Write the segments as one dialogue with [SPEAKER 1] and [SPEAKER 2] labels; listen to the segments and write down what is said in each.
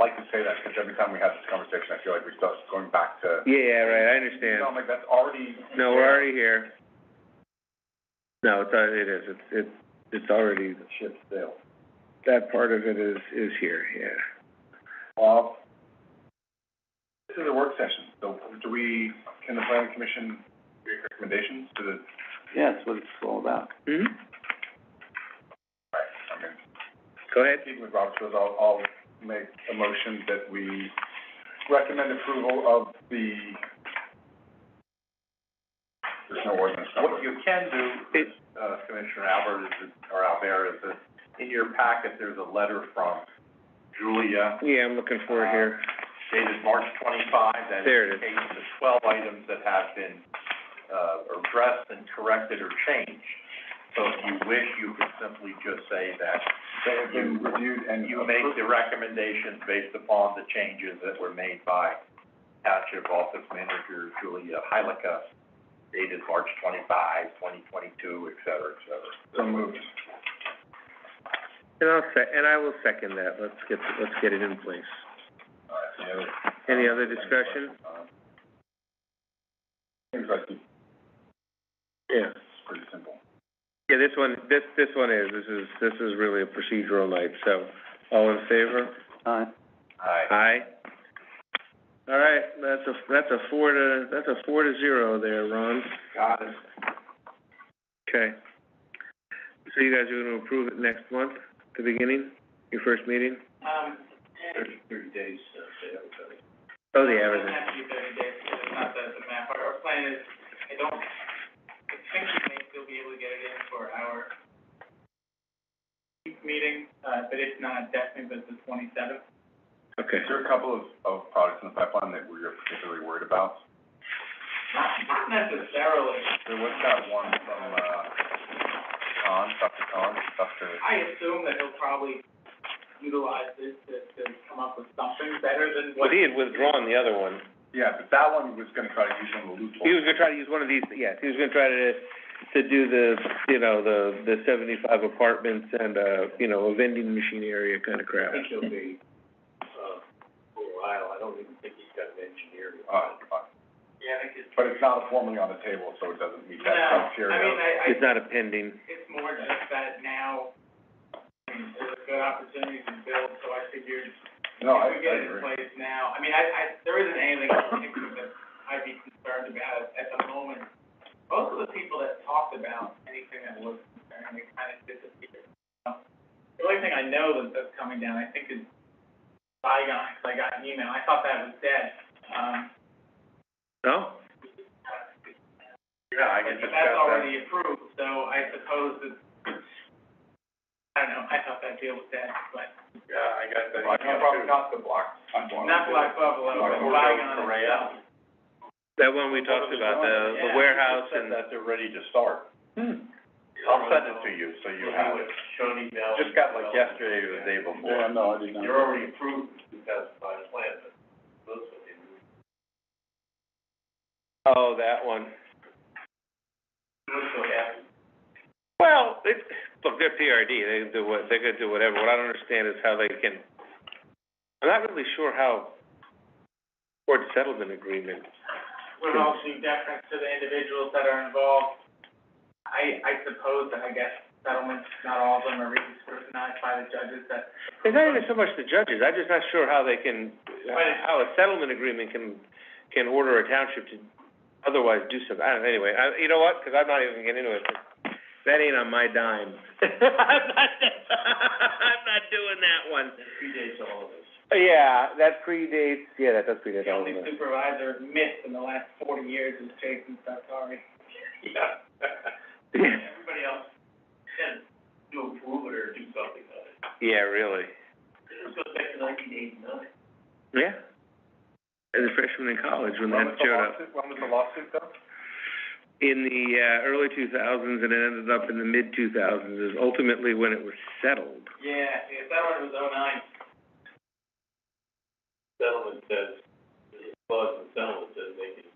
[SPEAKER 1] like to say that because every time we have this conversation, I feel like we start going back to,
[SPEAKER 2] Yeah, right, I
[SPEAKER 1] you
[SPEAKER 2] understand.
[SPEAKER 1] know, I'm like, that's already.
[SPEAKER 2] No, we're already here. No, it's, al- it is, it's, it's, it's already,
[SPEAKER 1] Ship sail.
[SPEAKER 2] that part of it is, is here, yeah.
[SPEAKER 1] Bob? This is a work session, so do we, can the planning commission make recommendations to the,
[SPEAKER 3] Yeah, that's what it's all about.
[SPEAKER 2] Mm-hmm.
[SPEAKER 1] right, I mean,
[SPEAKER 2] Go ahead.
[SPEAKER 1] speaking with Robert's rules, I'll, I'll make a motion that we recommend approval of the, there's no ordinance number.
[SPEAKER 4] What you can do,
[SPEAKER 2] It-
[SPEAKER 4] uh, Commissioner Albert, is, that- or Albert, is that in your packet, there's a letter from Julia
[SPEAKER 2] Yeah, I'm looking for it here.
[SPEAKER 4] dated March twenty-five that
[SPEAKER 2] There it is.
[SPEAKER 4] indicates the twelve items that have been, uh, addressed and corrected or changed. So if you wish, you could simply just say that
[SPEAKER 1] They have been reviewed and
[SPEAKER 4] you make
[SPEAKER 1] approved.
[SPEAKER 4] the recommendations based upon the changes that were made by Township Office Manager Julia Hylika, dated March 25, 2022, et cetera, et cetera.
[SPEAKER 1] So moved.
[SPEAKER 2] And I'll sec- and I will second that, let's get, let's get it in place.
[SPEAKER 1] All right, any other-
[SPEAKER 2] Any other discussion?
[SPEAKER 1] Seems like it's
[SPEAKER 2] Yeah.
[SPEAKER 1] pretty simple.
[SPEAKER 2] Yeah, this one, this, this one is, this is, this is really a procedural night, so, all in favor?
[SPEAKER 3] Uh,
[SPEAKER 4] Aye.
[SPEAKER 2] Aye. All right, that's a, that's a four to, that's a four to zero there, Ron.
[SPEAKER 4] Got it.
[SPEAKER 2] Okay. So you guys are gonna approve it next month, the beginning, your first meeting?
[SPEAKER 5] Um,
[SPEAKER 4] Thirty, thirty days, uh, say everybody.
[SPEAKER 2] Oh, the average.
[SPEAKER 5] It doesn't have to be thirty days, because it's not the, the map, our, our plan is, I don't, I think we may still be able to get it in for our meeting, uh, but if not, definitely the, the twenty-seventh.
[SPEAKER 2] Okay.
[SPEAKER 1] Is there a couple of, of products in the pipeline that we're particularly worried about?
[SPEAKER 5] Not, not necessarily,
[SPEAKER 1] There was that one from, uh, Khan, Dr. Khan, Dr.
[SPEAKER 5] I assume that he'll probably utilize this to, to come up with something better than what.
[SPEAKER 2] he had withdrawn the other one.
[SPEAKER 1] Yeah, but that one was gonna try to use some of the
[SPEAKER 2] He
[SPEAKER 1] loopholes.
[SPEAKER 2] was gonna try to use one of these, yes, he was gonna try to, to do the, you know, the, the seventy-five apartments and, uh, you know, a vending machine area kind of crap.
[SPEAKER 4] think he'll be, uh, for a while, I don't even think he's got an engineer.
[SPEAKER 1] Uh, uh,
[SPEAKER 5] Yeah, I think it's.
[SPEAKER 1] but it's not formally on the table, so it doesn't meet
[SPEAKER 5] No,
[SPEAKER 1] that
[SPEAKER 5] I mean,
[SPEAKER 1] criteria.
[SPEAKER 5] I, I.
[SPEAKER 2] It's not a pending.
[SPEAKER 5] It's more just that now, um, there's a good opportunity to build, so I figured
[SPEAKER 1] No, I,
[SPEAKER 5] If we
[SPEAKER 1] I
[SPEAKER 5] get it in
[SPEAKER 1] agree.
[SPEAKER 5] place now, I mean, I, I, there isn't anything in particular that I'd be concerned about at the moment. Most of the people that talked about anything that was concerning, they kind of disappeared. Um, The only thing I know that, that's coming down, I think, is Saigon, 'cause I got an email, I thought that was dead. Um,
[SPEAKER 2] No?
[SPEAKER 4] Yeah, I can
[SPEAKER 5] but
[SPEAKER 4] discuss
[SPEAKER 5] that's
[SPEAKER 4] that.
[SPEAKER 5] already approved, so I suppose that, I don't know, I thought that deal was dead, but
[SPEAKER 4] Yeah, I got that.
[SPEAKER 1] Well, I can't
[SPEAKER 4] Probably not the block.
[SPEAKER 5] not Black Buffalo, but Saigon itself.
[SPEAKER 2] That one we talked about, the, the warehouse and,
[SPEAKER 4] That they're ready to start.
[SPEAKER 1] Hmm.
[SPEAKER 4] I'll send it to you, so you have it. Just got like yesterday or the day before.
[SPEAKER 1] Yeah, no, I did not.
[SPEAKER 4] already approved two thousand five plan, but those are the.
[SPEAKER 2] oh, that one.
[SPEAKER 4] so happy.
[SPEAKER 2] Well, it, look, they're PRD, they can do what, they could do whatever, what I don't understand is how they can, I'm not really sure how court settlement agreement,
[SPEAKER 5] would also do deference to the individuals that are involved. I, I suppose that, I guess, settlements, not all of them are really scrutinized by the judges, that,
[SPEAKER 2] it's not even so much the judges, I'm just not sure how they can, how a settlement agreement can, can order a township to otherwise do something, I don't, anyway, I, you know what, 'cause I'm not even getting into it, 'cause that ain't on my dime. I'm not, I'm not doing that one.
[SPEAKER 4] Predates all of this.
[SPEAKER 2] Yeah, that predates, yeah, that does predate
[SPEAKER 5] the
[SPEAKER 2] all of
[SPEAKER 5] only
[SPEAKER 2] that.
[SPEAKER 5] supervisor missed in the last forty years is Jason Sartori.
[SPEAKER 4] Yeah.
[SPEAKER 5] Everybody else can
[SPEAKER 4] To approve it or do something about it.
[SPEAKER 2] Yeah, really.
[SPEAKER 4] This goes back to nineteen eighty-nine.
[SPEAKER 2] Yeah. As a freshman in college, when that showed up.
[SPEAKER 1] When was the lawsuit, though?
[SPEAKER 2] In the, uh, early two thousands, and it ended up in the mid two thousands, is ultimately when it was settled.
[SPEAKER 5] Yeah, yeah, settlement was oh nine.
[SPEAKER 4] Settlement says, the clause in settlement says they can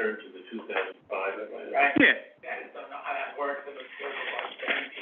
[SPEAKER 4] turn to the two thousand five.
[SPEAKER 5] Right.
[SPEAKER 2] Yeah.
[SPEAKER 5] I just don't know how that works, if it's, if